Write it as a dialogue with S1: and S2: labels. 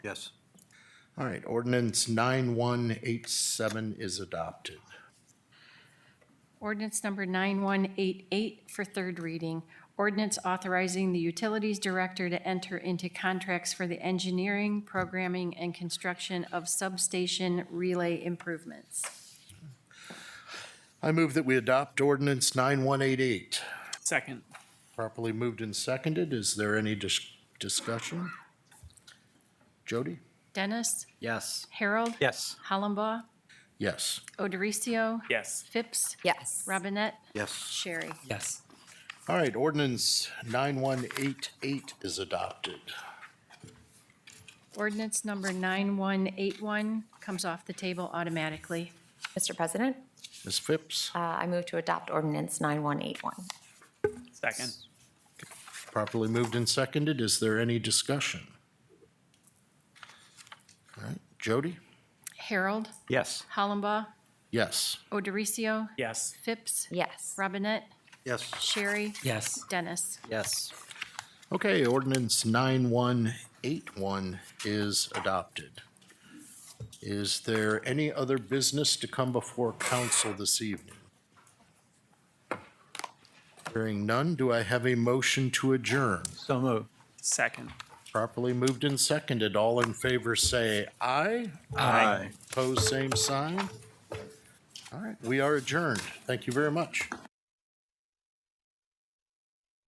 S1: Yes.
S2: All right, ordinance nine one eight seven is adopted.
S3: Ordinance number 9188 for third reading. Ordinance authorizing the Utilities Director to enter into contracts for the engineering, programming, and construction of substation relay improvements.
S2: I move that we adopt ordinance nine one eight eight.
S4: Second.
S2: Properly moved and seconded. Is there any dis- discussion? Jody?
S3: Dennis,
S1: Yes.
S3: Harold,
S1: Yes.
S3: Hollenbaugh,
S2: Yes.
S3: Odericio,
S4: Yes.
S3: Phipps,
S5: Yes.
S3: Robinette,
S1: Yes.
S3: Sherry.
S4: Yes.
S2: All right, ordinance nine one eight eight is adopted.
S3: Ordinance number 9181 comes off the table automatically.
S5: Mr. President,
S2: Ms. Phipps,
S5: uh, I move to adopt ordinance 9181.
S4: Second.
S2: properly moved and seconded. Is there any discussion? All right, Jody?
S3: Harold,
S1: Yes.
S3: Hollenbaugh,
S2: Yes.
S3: Odericio,
S4: Yes.
S3: Phipps,
S5: Yes.
S3: Robinette,
S1: Yes.
S3: Sherry,
S4: Yes.
S3: Dennis.
S1: Yes.
S2: Okay, ordinance 9181 is adopted. Is there any other business to come before council this evening? Hearing none, do I have a motion to adjourn?
S1: So moved.
S4: Second.
S2: Properly moved and seconded, all in favor say aye.
S4: Aye.
S2: Pose same sign. All right, we are adjourned. Thank you very much.